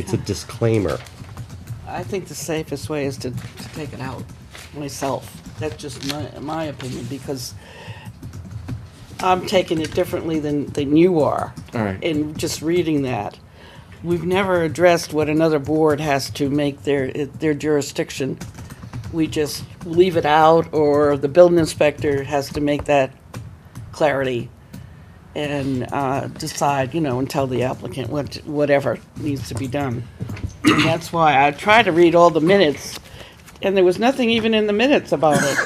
It's a disclaimer. I think the safest way is to, to take it out myself. That's just my, my opinion, because I'm taking it differently than, than you are. All right. In just reading that. We've never addressed what another board has to make their, their jurisdiction. We just leave it out, or the building inspector has to make that clarity and uh, decide, you know, and tell the applicant what, whatever needs to be done. And that's why I tried to read all the minutes, and there was nothing even in the minutes about it.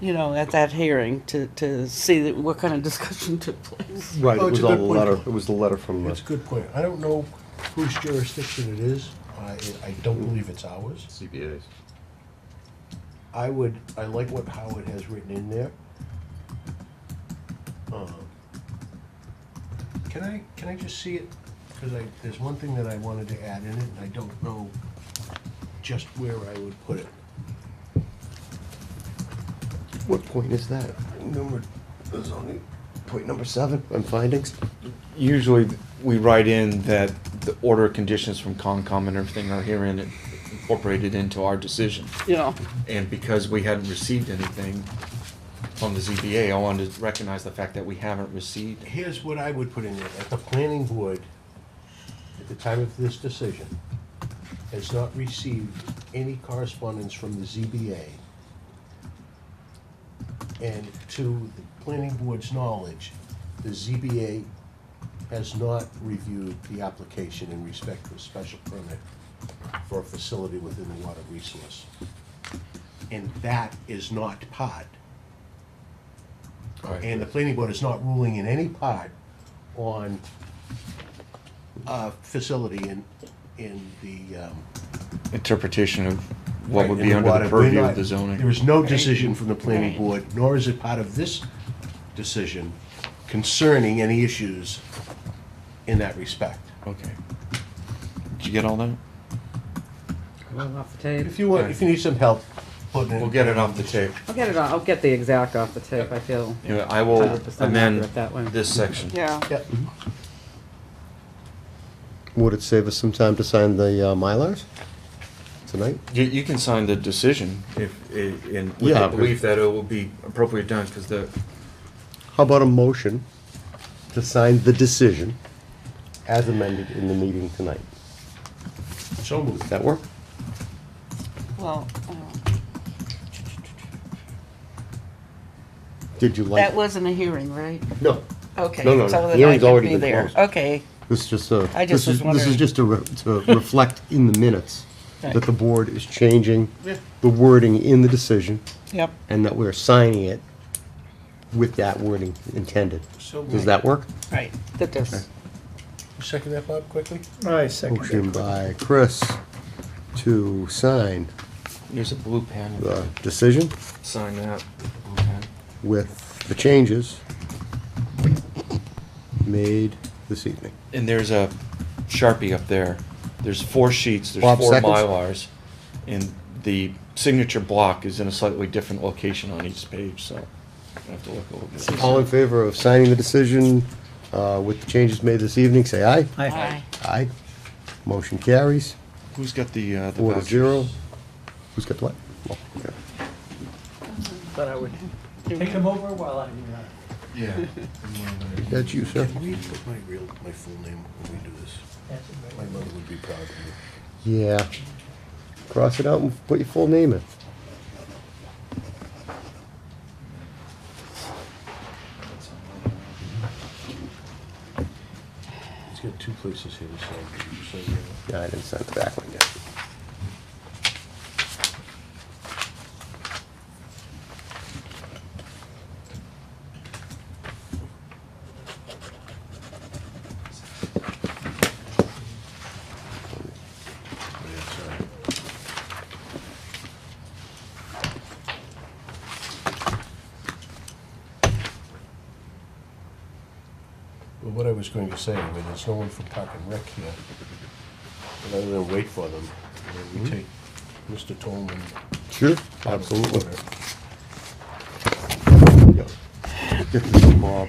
You know, at that hearing to, to see that what kind of discussion took place. Right, Oh, it it's was a all the good point. letter, it was the letter from That's the, a good point. I don't know whose jurisdiction it is. I, I don't believe it's ours. CBA's. I would, I like what Howard has written in there. Um, Can I, can I just see it? Because I, there's one thing that I wanted to add in it, and I don't know just where I would put it. what point is that? Number, there's only, point number seven on findings? Usually, we write in that the order of conditions from Concom and everything are herein incorporated into our decision. You know, And because we hadn't received anything from the ZBA, I wanted to recognize the fact that we haven't received. Here's what I would put in there, that the planning board, at the time of this decision, has not received any correspondence from the ZBA. And to the planning board's knowledge, the ZBA has not reviewed the application in respect to a special permit for a facility within the water resource. And that is not part and the planning board is not ruling in any part on a facility in, in the, um. Interpretation of what would in be under water. the We're purview not- of the There zoning. is no decision from the planning Right. board, nor is it part of this decision concerning any issues in that respect. Okay. Did you get all that? Well, off the tape. If you want, if you need some help putting it. We'll get it off the tape. I'll get it on. I'll get the exact off the tape. I feel. Anyway, I will 100% amend accurate that way. this section. yeah. Yep. Would it save us some time to sign the uh, Mylars tonight? You, you can sign the decision if, i- in, with Yeah, the but- belief that it will be appropriate done, because the, How about a motion to sign the decision as amended in the meeting tonight? So moved. Does that work? Well, uh, Did you like? that wasn't a hearing, right? No, Okay. No, no, no. so then I Hearing's could already be been there. closed. Okay, this is just a, I this just is, was this is wondering. just to, re- to reflect in the minutes that Right. the board is changing Yeah. the wording in the decision yep. and that we're signing it with that wording intended. So Does that work? Right. That does. Second that, Bob, quickly? I second it. Motion by Chris to sign there's a blue pen. if you the decision Sign that. with the changes made this evening. And there's a Sharpie up there. There's four sheets, there's Bob, four seconds? Mylars. And the signature block is in a slightly different location on each page, so I have to look a little bit. All in favor of signing the decision uh, with the changes made this evening, say aye. Aye. Aye. Motion carries, Who's got the, uh, the four to vouchers? zero. Who's got the what? But I would take them over while I'm uh, Yeah. That's you, sir. Can we put my real, my full name when we do this? answering my My mother would be proud of me. Yeah. Cross it out and put your full name in. He's got two places here to sign. So, yeah. Yeah, I didn't sign the back one yet. Well, what I was going to say, I mean, there's no one from Park and Rec here. But other than wait for them, and then we take Mr. Tolman. Sure, out of absolutely. order. Get this mob.